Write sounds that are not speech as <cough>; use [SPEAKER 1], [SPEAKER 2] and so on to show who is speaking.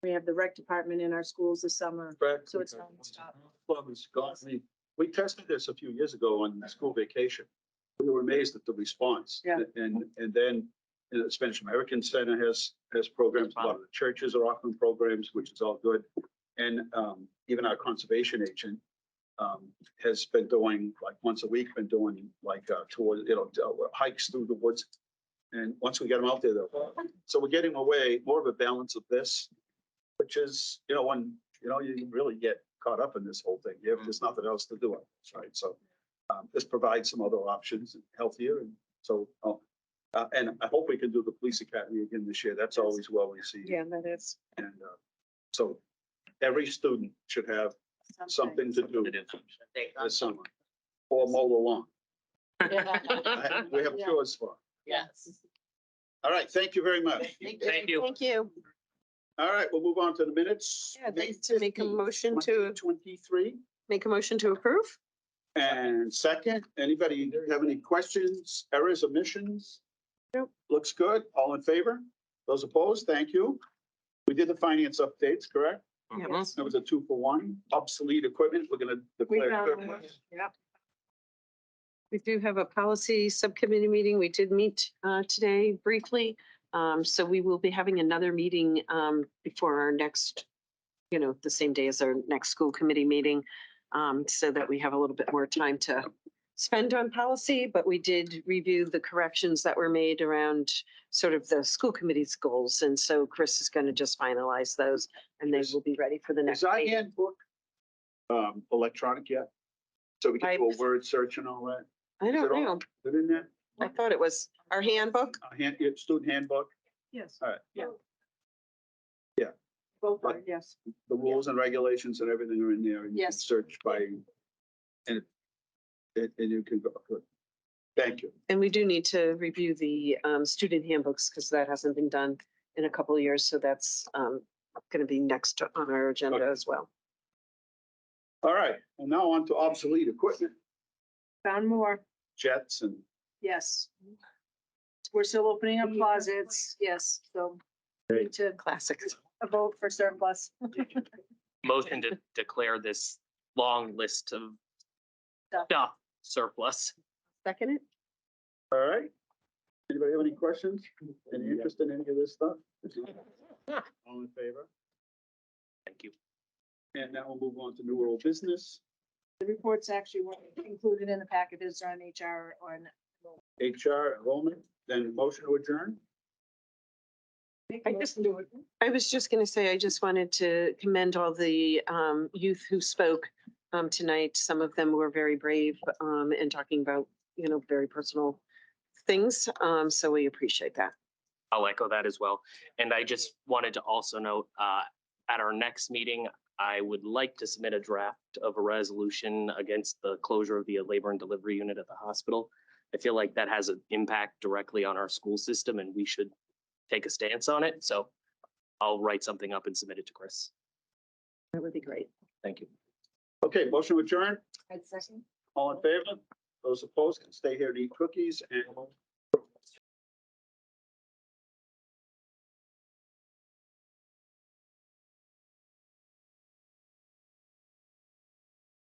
[SPEAKER 1] We have the rec department in our schools this summer.
[SPEAKER 2] Correct.
[SPEAKER 1] So it's nonstop.
[SPEAKER 2] Club has got me. We tested this a few years ago on school vacation. We were amazed at the response.
[SPEAKER 1] Yeah.
[SPEAKER 2] And, and then you know, the Spanish American Center has, has programs. A lot of the churches are offering programs, which is all good. And um, even our conservation agent um, has been doing, like, once a week, been doing like uh, tours, you know, uh, hikes through the woods. And once we get them out there, though, so we're getting away more of a balance of this, which is, you know, when, you know, you really get caught up in this whole thing. You have, there's nothing else to do, right? So um, this provides some other options, healthier, and so, oh, uh, and I hope we can do the police academy again this year. That's always well received.
[SPEAKER 1] Yeah, that is.
[SPEAKER 2] And uh, so every student should have something to do this summer or mow the lawn. I- We have
[SPEAKER 1] Yeah.
[SPEAKER 2] chores for.
[SPEAKER 3] <laughs> Yes.
[SPEAKER 2] it. All right, thank you very much.
[SPEAKER 3] Thank you.
[SPEAKER 4] Thank you.
[SPEAKER 2] All right, we'll move on to the minutes.
[SPEAKER 4] Yeah, I'd
[SPEAKER 2] May
[SPEAKER 4] like to make a
[SPEAKER 2] 15th,
[SPEAKER 4] motion to,
[SPEAKER 2] 2023.
[SPEAKER 4] make a motion to approve?
[SPEAKER 2] And second, anybody have any questions, errors, omissions? Looks good. All in favor? Those opposed? Thank you. We did the finance updates, correct?
[SPEAKER 3] Uh-huh.
[SPEAKER 4] Yes.
[SPEAKER 2] That was a two for one. Obsolete equipment, we're gonna declare.
[SPEAKER 1] found
[SPEAKER 2] surplus.
[SPEAKER 4] um, We do have a policy subcommittee meeting. We did meet uh, today briefly. Um, So we will be having another meeting um, before our next, you know, the same day as our next school committee meeting. um, So that we have a little bit more time to spend on policy, but we did review the corrections that were made around sort of the school committee's goals. And so Chris is going to just finalize those and they will be ready for the
[SPEAKER 2] Is
[SPEAKER 4] next
[SPEAKER 2] our
[SPEAKER 4] meeting.
[SPEAKER 2] handbook um, electronic yet? So we
[SPEAKER 4] I-
[SPEAKER 2] can do a word search and all that?
[SPEAKER 4] I
[SPEAKER 2] it
[SPEAKER 4] don't
[SPEAKER 2] all-
[SPEAKER 4] know.
[SPEAKER 2] Is it in there?
[SPEAKER 4] I thought it was our handbook.
[SPEAKER 2] Our Hand, your student handbook,
[SPEAKER 1] Yes.
[SPEAKER 2] all right,
[SPEAKER 1] Both are, yes.
[SPEAKER 2] the rules and regulations and everything are in there. and you can
[SPEAKER 1] Yes.
[SPEAKER 2] Search by, and, and and you can go, good. Thank you.
[SPEAKER 4] And we do need to review the um, student handbooks because that hasn't been done in a couple of years. So that's going to be next on our agenda
[SPEAKER 2] Okay.
[SPEAKER 4] as well.
[SPEAKER 2] All right, and now on to obsolete equipment,
[SPEAKER 1] Found more,
[SPEAKER 2] jets and
[SPEAKER 1] yes. We're still opening up closets, yes, so we need to
[SPEAKER 4] Classics.
[SPEAKER 1] a vote for surplus.
[SPEAKER 3] <laughs> Motion to declare this long list of
[SPEAKER 1] Stuff.
[SPEAKER 3] stuff surplus.
[SPEAKER 4] Second it?
[SPEAKER 2] All right. Anybody have any questions? Any interest in any of this stuff? All in favor?
[SPEAKER 3] Thank you.
[SPEAKER 2] And now we'll move on to new world business,
[SPEAKER 1] The reports actually weren't included in the packages on HR or on.
[SPEAKER 2] HR enrollment, then motion to adjourn.
[SPEAKER 4] I just I was just going to say, I just wanted to commend all the um, youth who spoke um, tonight. Some of them were very brave um, in talking about, you know, very personal things. Um, So we appreciate that.
[SPEAKER 3] I'll echo that as well. And I just wanted to also note, uh, at our next meeting, I would like to submit a draft of a resolution against the closure of the labor and delivery unit at the hospital. I feel like that has an impact directly on our school system and we should take a stance on it. So I'll write something up and submit it to Chris.
[SPEAKER 4] That would be great.
[SPEAKER 3] Thank you.
[SPEAKER 2] Okay, motion to adjourn, all in favor? Those opposed can stay here and eat cookies and